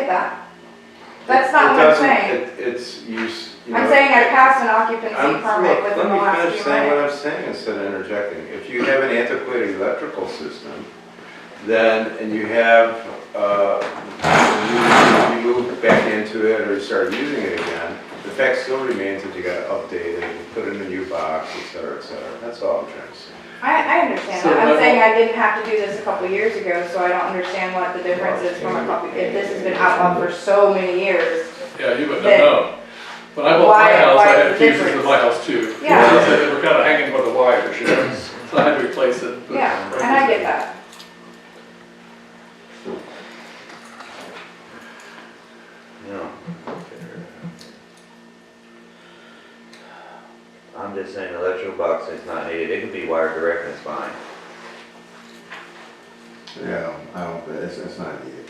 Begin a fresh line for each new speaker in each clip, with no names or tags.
that. That's not
It
what I'm
doesn't-
saying.
it- It's, you, s- you know.
I'm saying I passed an
I'm-
occupancy permit
look,
within the
Let me
last
finish
few
saying what
minutes.
I'm saying instead of interjecting. If you have an antiquated electrical system, then, and you have, uh, you you move back into it or start using it again, the fact still remains that you gotta update it, and put in a new box, et cetera, et cetera. That's all I'm trying to say.
I, I understand
So
that. I'm
level-
saying I didn't have to do this a couple years ago, so I don't understand what the difference is from a couple, if this has been outlawed for so many years.
Yeah, you wouldn't
Then-
have known. When I bought
Why-
my house,
why
I
the
had fuses in
difference?
my house too.
Yeah.
So They were kind of hanging by the wires, you know, so I had to replace it. but-
Yeah, and I get that.
No. I'm just saying electrical box is not needed, it can be wired direct and it's fine.
Yeah, I don't, think- it's, it's not needed.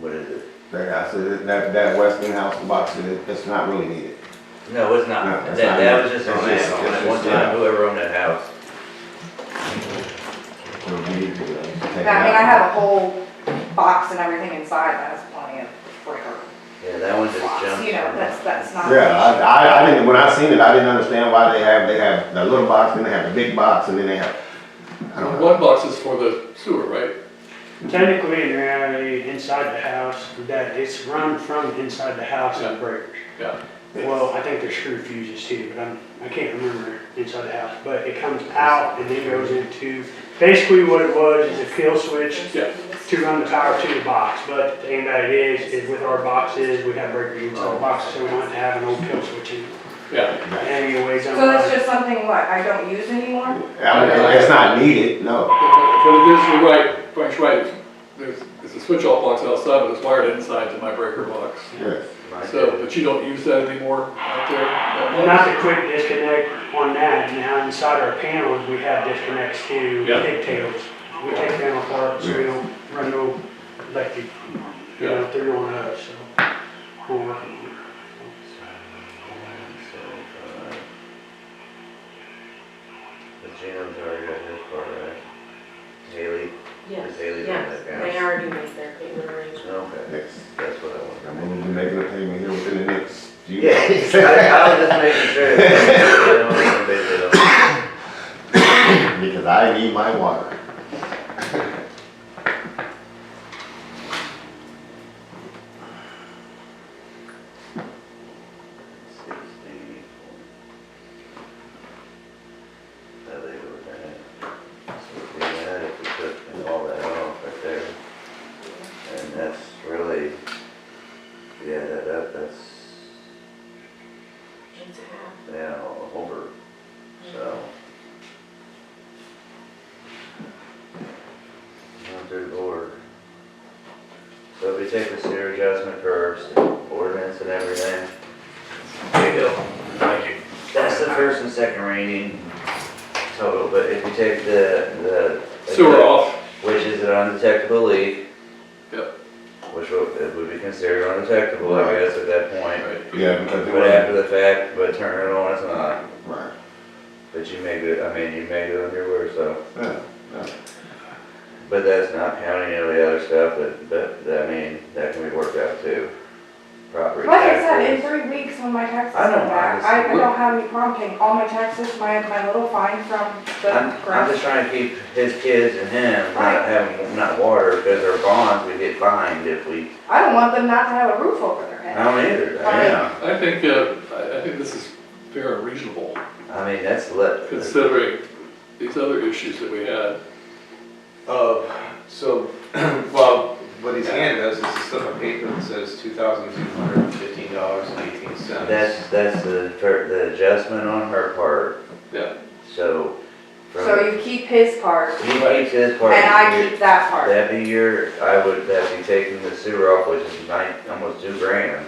What is it?
Like I said, that, that Westinghouse box, it, it's not really needed.
No, it's
No,
not, that,
it's not
that was
needed.
just an
It's just-
add-on,
it's
at one
just, yeah.
time, whoever owned that house.
So we need to, uh, take
I
it
mean, I
out.
have a whole box and everything inside that has plenty of breaker
Yeah, that one just
blocks,
jumped.
you know,
from-
that's, that's not.
Yeah, I, I, I didn't, when I seen it, I didn't understand why they have, they have the little box, then they have the big box, and then they have, I don't know.
One box is for the sewer, right?
Technically, uh, inside the house, that it's run from inside the house and breakers.
Yeah.
Well, I think there's screw fuses too, but I'm, I can't remember inside the house, but it comes out and then goes into, basically what it was is a kill switch
Yeah.
to run the power to the box, but the thing that it is, is with our boxes, we have breakers inside the boxes, so we don't have to have an old kill switch in.
Yeah,
Anyways, I'm.
So that's just something, what, I don't use anymore?
I mean, It's not needed, no.
but it is, you're right, Frank's right, there's, there's a switch off box outside, but it's wired inside to my breaker box.
Yes.
Right
So,
there.
but you don't use that anymore out there? that
Well,
box?
not the quick disconnect on that, now inside our panels, we have disconnects to
Yeah.
pigtails. We take them apart, so we don't run no electric, you know, through on us, so. we're working on it.
But Gino's already got his part, right? Haley,
Yes,
is Haley doing
yes,
that
they
now?
already made their payment arrangement.
Okay,
Yes.
that's what I
I'm
want.
gonna be making a payment here within the next few.
Yeah, I, I was just making sure. that- I don't wanna base it on-
Because I need my water.
Sixty. I think it was that. So if we had, if we took all that off right there, and that's really, yeah, that, that, that's
It's half.
now over, so. Now through the board. Oh, So if we take the sewer adjustment curves, ordinance and everything. There you go. Thank you. That's the first and second reading total, but if you take the, the.
Sewer off,
Which is an undetectable leak.
Yep.
Which would, it would be considered undetectable, I guess, at that point.
right?
Yeah, because they
But
were,
after the fact, but turn it on, it's not.
right,
But you may do, I mean, you may do it your word, so.
yeah.
But that's not counting any of the other stuff that, that, that, I mean, that can be worked out too. Property
Like I said, in
taxes.
three weeks when my taxes
I
come
know,
back,
I
I,
just-
I don't have any problem paying all my taxes, my, my little fine from
I'm,
the
I'm
grant.
just trying to keep his kids and him
Right.
not having, not water, because our bonds, we get fined if we,
I don't want them not to have a roof over their
I
head.
don't either,
Right.
yeah.
I think, uh, I, I think this is fair and reasonable,
I mean, that's let,
considering these other issues that we had.
Of, Uh, so, well, what he's handed us is a slip of paper that says two thousand two hundred and fifteen dollars and eighteen cents.
that's, that's the, fir- the adjustment on her part,
Yeah,
so. from-
So you keep his part
He keeps his part.
and I keep that part.
That'd be your, I would, that'd be taking the sewer off, which is nine, almost two grand,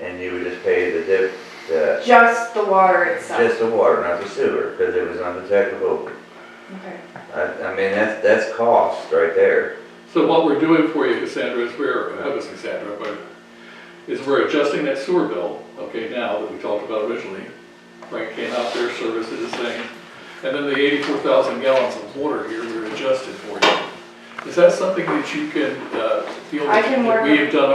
and you would just pay the dip, the,
Just the water itself.
just the water, not the sewer, because it was undetectable.
Okay.
I, I mean, that's, that's cost right there.
so what we're doing for you, Cassandra, is we're, that was Cassandra, but, is we're adjusting that sewer bill, okay, now that we talked about originally. Frank came out there, serviced his thing, and then the eighty-four thousand gallons of water here, we're adjusted for you. Is that something that you can, uh, feel
I can
that
work
we have done our